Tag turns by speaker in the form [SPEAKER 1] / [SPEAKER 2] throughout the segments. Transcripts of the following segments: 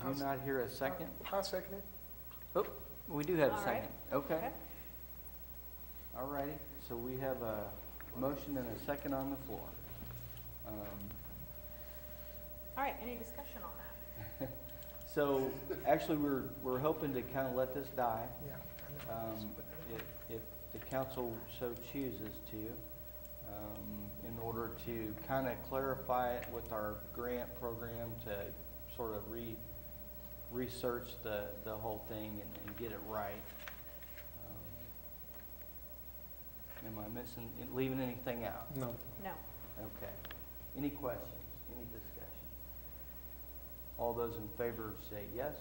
[SPEAKER 1] Do you not hear a second?
[SPEAKER 2] I second it.
[SPEAKER 1] Oh, we do have a
[SPEAKER 3] All right.
[SPEAKER 1] second. Okay.
[SPEAKER 3] Okay.
[SPEAKER 1] All righty, so we have a motion and a second on the floor. Um,
[SPEAKER 3] All right, any discussion on that?
[SPEAKER 1] So, actually, we're, we're hoping to kind of let this die,
[SPEAKER 2] Yeah. I know.
[SPEAKER 1] um, if, if the council so chooses to, um, in order to kind of clarify it with our grant program to sort of re, research the, the whole thing and, and get it right. Um, Am I missing, leaving anything out?
[SPEAKER 2] No.
[SPEAKER 3] No.
[SPEAKER 1] Okay. Any questions, any discussion? All those in favor say yes.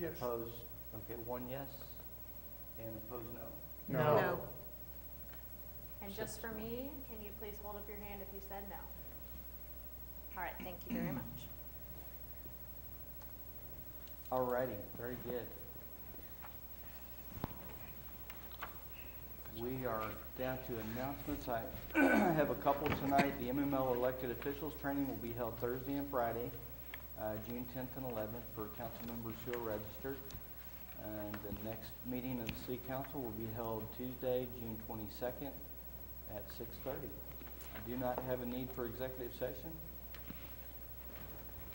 [SPEAKER 2] Yes.
[SPEAKER 1] Opposed, okay, one yes, and opposed no.
[SPEAKER 4] No.
[SPEAKER 3] And just for me, can you please hold up your hand if you said no? All right, thank you very much.
[SPEAKER 1] All righty, very good. We are down to announcements. I have a couple tonight. The MML elected officials training will be held Thursday and Friday, uh, June 10th and 11th for council members who are registered. And the next meeting of the city council will be held Tuesday, June 22nd at 6:30. I do not have a need for executive session.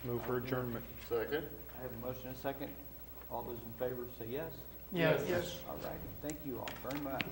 [SPEAKER 4] Move for adjournment.
[SPEAKER 5] Second.
[SPEAKER 1] I have a motion and a second. All those in favor say yes.
[SPEAKER 2] Yes. Yes.
[SPEAKER 1] All righty, thank you all very much.